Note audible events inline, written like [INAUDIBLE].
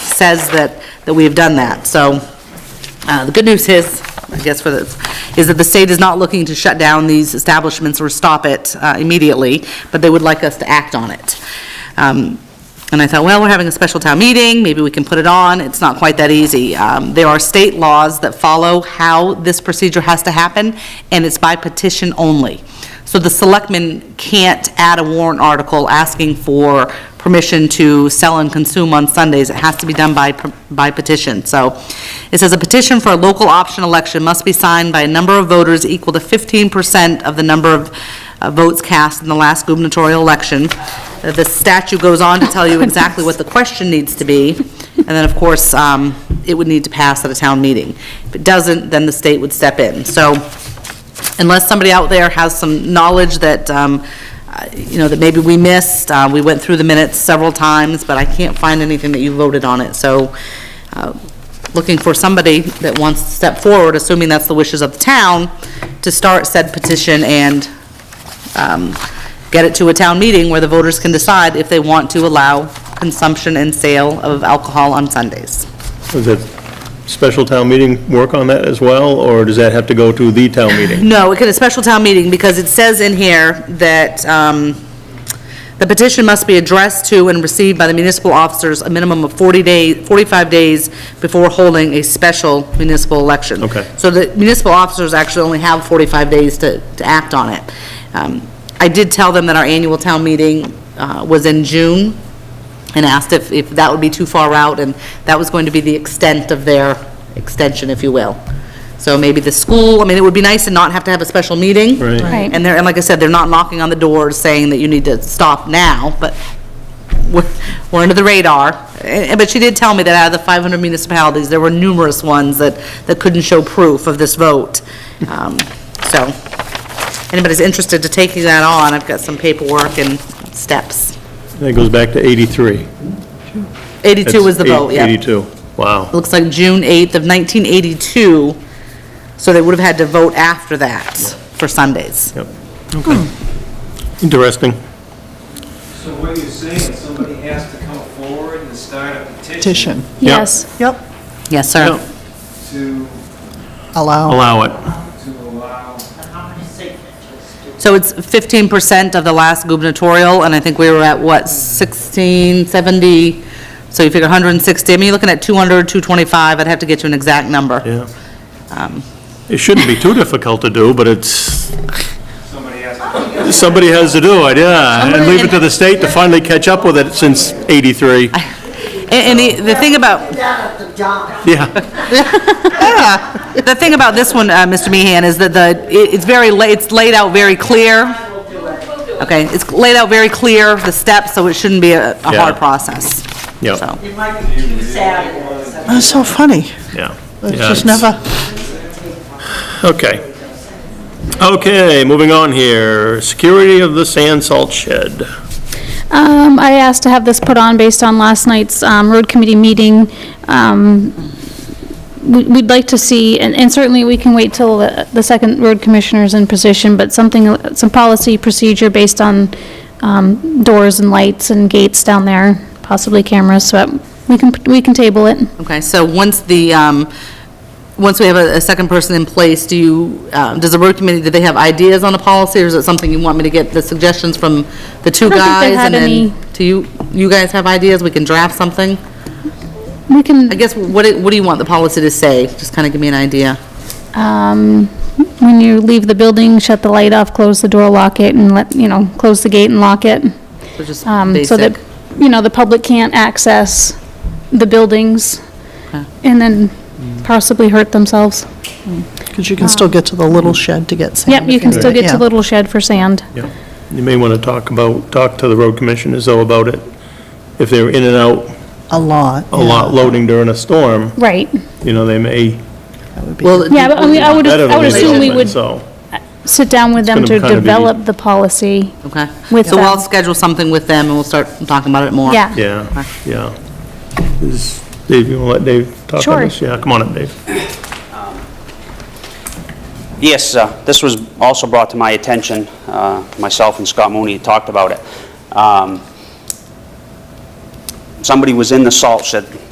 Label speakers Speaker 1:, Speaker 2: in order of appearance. Speaker 1: says that, that we have done that. So uh, the good news is, I guess for the, is that the state is not looking to shut down these establishments or stop it uh, immediately, but they would like us to act on it. Um, And I thought, well, we're having a special town meeting, maybe we can put it on. It's not quite that easy. Um, There are state laws that follow how this procedure has to happen, and it's by petition only. So the selectmen can't add a warrant article asking for permission to sell and consume on Sundays. It has to be done by, by petition. So it says, "A petition for a local option election must be signed by a number of voters equal to 15% of the number of uh, votes cast in the last gubernatorial election." Uh, The statute goes on to tell you exactly what the question needs to be, and then, of course, um, it would need to pass at a town meeting. If it doesn't, then the state would step in. So unless somebody out there has some knowledge that, um, uh, you know, that maybe we missed. Uh, We went through the minutes several times, but I can't find anything that you voted on it. So uh, looking for somebody that wants to step forward, assuming that's the wishes of the town, to start said petition and um, get it to a town meeting where the voters can decide if they want to allow consumption and sale of alcohol on Sundays.
Speaker 2: Does that special town meeting work on that as well, or does that have to go to the town [COUGHS] meeting?
Speaker 1: No, it could, a special town meeting, because it says in here that um, the petition must be addressed to and received by the municipal officers a minimum of 40 days, 45 days before holding a special municipal election.
Speaker 2: Okay.
Speaker 1: So the municipal officers actually only have 45 days to, to act on it. Um, I did tell them that our annual town meeting uh, was in June, and asked if, if that would be too far out, and that was going to be the extent of their extension, if you will. So maybe the school, I mean, it would be nice to not have to have a special meeting.
Speaker 2: Right.
Speaker 3: Right.
Speaker 1: And they're, and like I said, they're not knocking on the doors saying that you need to stop now, but we're, we're under the radar. Eh, eh, But she did tell me that out of the 500 municipalities, there were numerous ones that, that couldn't show proof of this vote. Um, So, anybody's interested to taking that on, I've got some paperwork and steps.
Speaker 2: That goes back to 83.
Speaker 1: 82 was the vote, yeah.
Speaker 2: 82, wow.
Speaker 1: looks like June 8th of 1982, so they would have had to vote after that for Sundays.
Speaker 2: Yep. Okay. Interesting.
Speaker 4: So what you're saying is somebody has to come forward and start a petition
Speaker 5: petition.
Speaker 3: Yes,
Speaker 5: Yep,
Speaker 1: Yes, sir.
Speaker 4: to,
Speaker 5: allow.
Speaker 2: Allow it.
Speaker 4: to allow,
Speaker 1: So it's 15% of the last gubernatorial, and I think we were at, what, 16, 70? So you figure 160, I mean, you're looking at 200, 225, I'd have to get you an exact number.
Speaker 2: Yeah.
Speaker 1: Um.
Speaker 2: It shouldn't be too difficult to do, but it's,
Speaker 4: somebody has to.
Speaker 2: somebody has to do it, yeah. And
Speaker 1: Somebody-
Speaker 2: leave it to the state to finally catch up with it since 83.
Speaker 1: And- And the- the thing about,
Speaker 2: [LAUGHS] Yeah,
Speaker 1: The thing about this one, uh, Mr. Meehan, is that the, it- it's very, la- it's laid out very clear. Okay, it's laid out very clear, the steps, so it shouldn't be a a hard
Speaker 2: Yeah.
Speaker 1: process.
Speaker 2: Yeah.
Speaker 1: So,
Speaker 5: That's so funny.
Speaker 2: yeah.
Speaker 5: It's
Speaker 2: Yeah,
Speaker 5: just never,
Speaker 2: Okay. Okay, moving on here. Security of the sand salt shed.
Speaker 3: um, I asked to have this put on based on last night's, um, road committee meeting. Um, we- we'd like to see, and, and certainly we can wait till the, the second road commissioner's in position, but something, some policy procedure based on, um, doors and lights and gates down there, possibly cameras, so we can, we can table it.
Speaker 1: okay, so once the, um, once we have a a second person in place, do you, um, does the road committee, do they have ideas on a policy, or is it something you want me to get the suggestions from the two
Speaker 3: I don't think they
Speaker 1: guys?
Speaker 3: had
Speaker 1: and then
Speaker 3: any-
Speaker 1: Do you, you guys have ideas, we can draft something?
Speaker 3: We can.
Speaker 1: I guess, what, do- what do you want the policy to say? Just kind of give me an idea.
Speaker 3: um, when you leave the building, shut the light off, close the door, lock it, and let, you know, close the gate and lock it.
Speaker 1: So just
Speaker 3: Um, so that,
Speaker 1: basic.
Speaker 3: you know, the public can't access the buildings
Speaker 1: Okay.
Speaker 3: and then possibly hurt themselves.
Speaker 5: because you can still get to the little shed to get sand.
Speaker 3: Yep, you can still get
Speaker 5: Yeah.
Speaker 3: to Little Shed for sand.
Speaker 2: Yeah, you may want to talk about, talk to the road commissioners though about it. If they're in and out
Speaker 5: A lot.
Speaker 2: a lot loading during a storm,
Speaker 3: Right,
Speaker 2: you know, they may,
Speaker 1: Well,
Speaker 3: yeah, but I mean, I would,
Speaker 2: that
Speaker 3: I would assume we
Speaker 2: available,
Speaker 3: would
Speaker 2: so.
Speaker 3: sit down with them
Speaker 2: gonna
Speaker 3: to
Speaker 2: kinda be-
Speaker 3: develop the policy.
Speaker 1: Okay.
Speaker 3: With
Speaker 1: So I'll
Speaker 3: them.
Speaker 1: schedule something with them, and we'll start talking about it more.
Speaker 3: Yeah.
Speaker 2: Yeah, yeah. Is, Dave, you want to let Dave talk
Speaker 3: Sure.
Speaker 2: on this? Yeah, come on up, Dave.
Speaker 6: Yes, uh, this was also brought to my attention. uh, Myself and Scott Mooney talked about it. Um, Somebody was in the salt shed